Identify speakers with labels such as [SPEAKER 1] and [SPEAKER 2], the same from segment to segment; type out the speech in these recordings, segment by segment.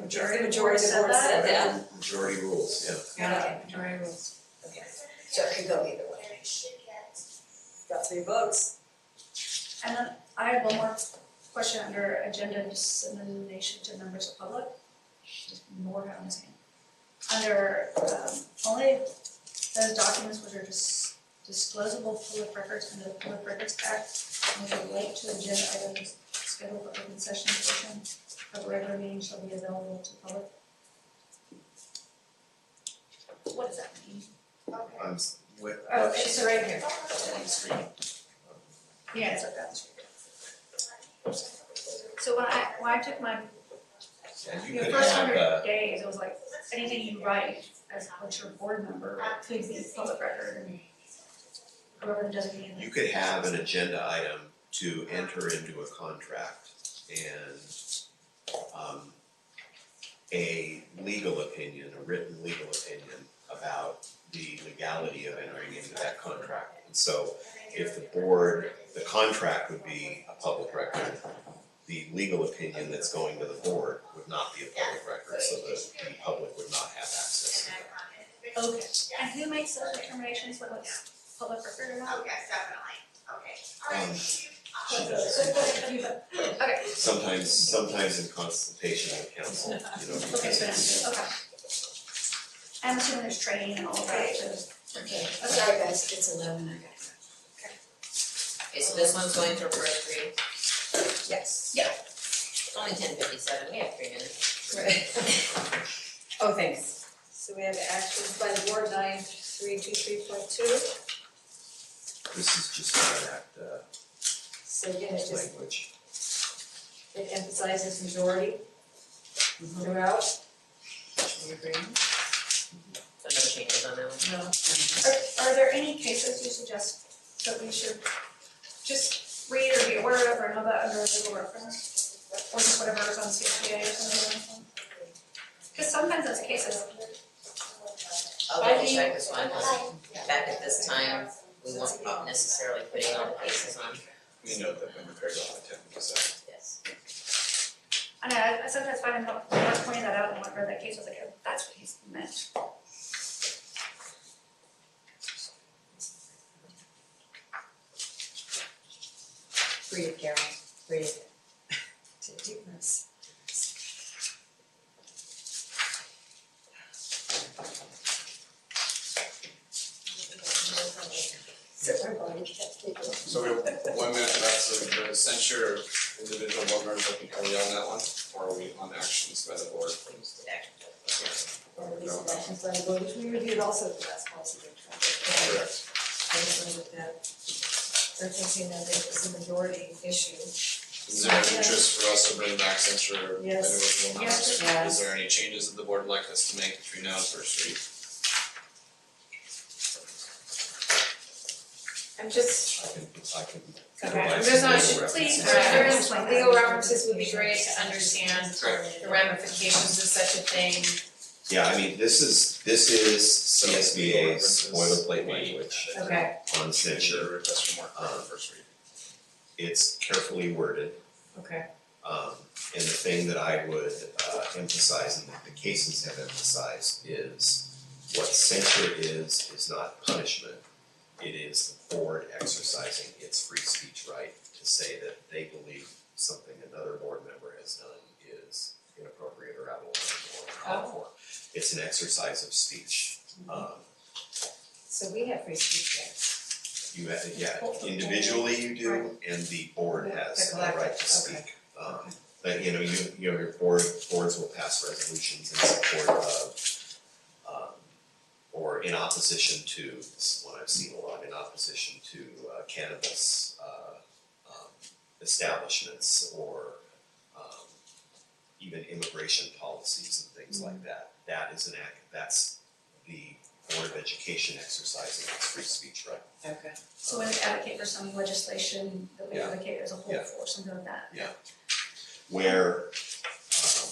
[SPEAKER 1] majority,
[SPEAKER 2] majority of the board said that.
[SPEAKER 3] majority rules, yeah.
[SPEAKER 1] Yeah,
[SPEAKER 2] Okay, majority rules. Okay,
[SPEAKER 1] so it could go either way.
[SPEAKER 2] got three votes.
[SPEAKER 4] And then I have one more question under agenda dissemination to members of public. Just more on this hand. Under um only those documents which are dis- disclosable public records under the Public Records Act and which relate to agenda items scheduled for open session portion of a regular meeting shall be available to public. What does that mean?
[SPEAKER 3] I'm s- wait,
[SPEAKER 4] Oh, it's right here.
[SPEAKER 3] on the screen.
[SPEAKER 4] Yeah, it's like that. So when I, when I took my
[SPEAKER 3] And you
[SPEAKER 4] Your
[SPEAKER 3] could
[SPEAKER 4] first
[SPEAKER 3] have,
[SPEAKER 4] hundred
[SPEAKER 3] uh,
[SPEAKER 4] days, it was like, anything you write as what your board member could be public record and whoever the designated.
[SPEAKER 3] you could have an agenda item to enter into a contract and um a legal opinion, a written legal opinion about the legality of entering into that contract. And so if the board, the contract would be a public record, the legal opinion that's going to the board would not be a public record, so the the public would not have access to that.
[SPEAKER 4] Okay, and who makes those determinations, whether it's public record or
[SPEAKER 3] Uh,
[SPEAKER 4] not?
[SPEAKER 5] Yes, definitely, okay.
[SPEAKER 3] Um, she
[SPEAKER 4] So,
[SPEAKER 3] does.
[SPEAKER 4] but you- but- okay,
[SPEAKER 3] Sometimes, sometimes in consultation with council, you know,
[SPEAKER 4] okay,
[SPEAKER 3] because
[SPEAKER 4] so
[SPEAKER 3] it's,
[SPEAKER 4] that's- okay. I'm assuming there's training and all of that, so,
[SPEAKER 1] Okay, I'm sorry guys, it's eleven, I gotta go.
[SPEAKER 6] Okay, so this one's going to for three,
[SPEAKER 1] Yes.
[SPEAKER 6] it's only ten fifty-seven, we have three minutes.
[SPEAKER 1] Oh, thanks.
[SPEAKER 2] So we have actions by the board nine three two three point two.
[SPEAKER 3] this is just not that uh
[SPEAKER 2] So again, it just
[SPEAKER 3] language.
[SPEAKER 2] it emphasizes majority throughout.
[SPEAKER 6] You agree? So no changes on that one.
[SPEAKER 2] No.
[SPEAKER 4] are, are there any cases you suggest that we should just read or be aware of or know about under legal reference? Or just whatever's on CPA or something like that? Cause sometimes those cases,
[SPEAKER 6] I'll
[SPEAKER 2] I
[SPEAKER 6] double
[SPEAKER 2] think-
[SPEAKER 6] check this one, back at this time, we won't be necessarily putting all the cases on,
[SPEAKER 7] We know that when prepared on the tenth, so.
[SPEAKER 6] yes.
[SPEAKER 4] I know, I I sometimes find I'm not, I'm not pointing that out in whatever that case, I was like, oh, that's what he's meant.
[SPEAKER 1] Breathe, Carol, breathe. Take deep breaths. So our body kept taking.
[SPEAKER 7] So we have one minute left, so the censure of individual board members, I think, are we on that one? Or are we on actions by the board?
[SPEAKER 2] Or these actions by the board, which we reviewed also at the last policy workshop.
[SPEAKER 7] Correct.
[SPEAKER 2] I was wondering if that, they're thinking that it was a majority issue.
[SPEAKER 7] Is there an interest for us to bring back censure of
[SPEAKER 2] Yes.
[SPEAKER 7] individual members?
[SPEAKER 1] Yeah.
[SPEAKER 7] Is there any changes that the board would like us to make between now and first read?
[SPEAKER 2] I'm just,
[SPEAKER 3] I can, I can.
[SPEAKER 2] Okay.
[SPEAKER 3] utilize
[SPEAKER 2] There's
[SPEAKER 3] some
[SPEAKER 2] not-
[SPEAKER 3] legal
[SPEAKER 2] please,
[SPEAKER 3] references.
[SPEAKER 2] there
[SPEAKER 4] is-
[SPEAKER 2] legal references would be great to understand
[SPEAKER 7] Correct.
[SPEAKER 2] the ramifications of such a thing.
[SPEAKER 3] Yeah, I mean, this is, this is CSBA's
[SPEAKER 7] So, references.
[SPEAKER 3] boilerplate language
[SPEAKER 2] Okay.
[SPEAKER 3] on censure.
[SPEAKER 7] Request for more clarity on first read.
[SPEAKER 3] It's carefully worded.
[SPEAKER 2] Okay.
[SPEAKER 3] Um, and the thing that I would uh, emphasize and that the cases have emphasized is what censure is, is not punishment. It is the board exercising its free speech right to say that they believe something another board member has done is inappropriate or out of line or uncalled for. It's an exercise of speech. Um,
[SPEAKER 2] So we have free speech rights.
[SPEAKER 3] you have, yeah, individually you do, and the board has the right to speak. Um, but you know, you, you know, your board, boards will pass resolutions in support of, um, or in opposition to, this is one I've seen a lot, in opposition to uh, cannabis, uh, um, establishments or, um, even immigration policies and things like that. That is an act, that's the Board of Education exercising its free speech right.
[SPEAKER 1] Okay.
[SPEAKER 4] So when we advocate for some legislation that we
[SPEAKER 3] Yeah.
[SPEAKER 4] advocate as a whole
[SPEAKER 3] Yeah.
[SPEAKER 4] for, something like that.
[SPEAKER 3] where um,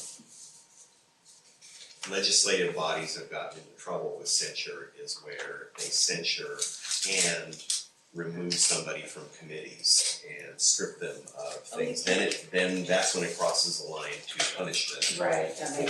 [SPEAKER 3] legislative bodies have gotten into trouble with censure is where they censure and remove somebody from committees and strip them of things. Then it, then that's when it crosses the line to punishment.
[SPEAKER 1] Right, that makes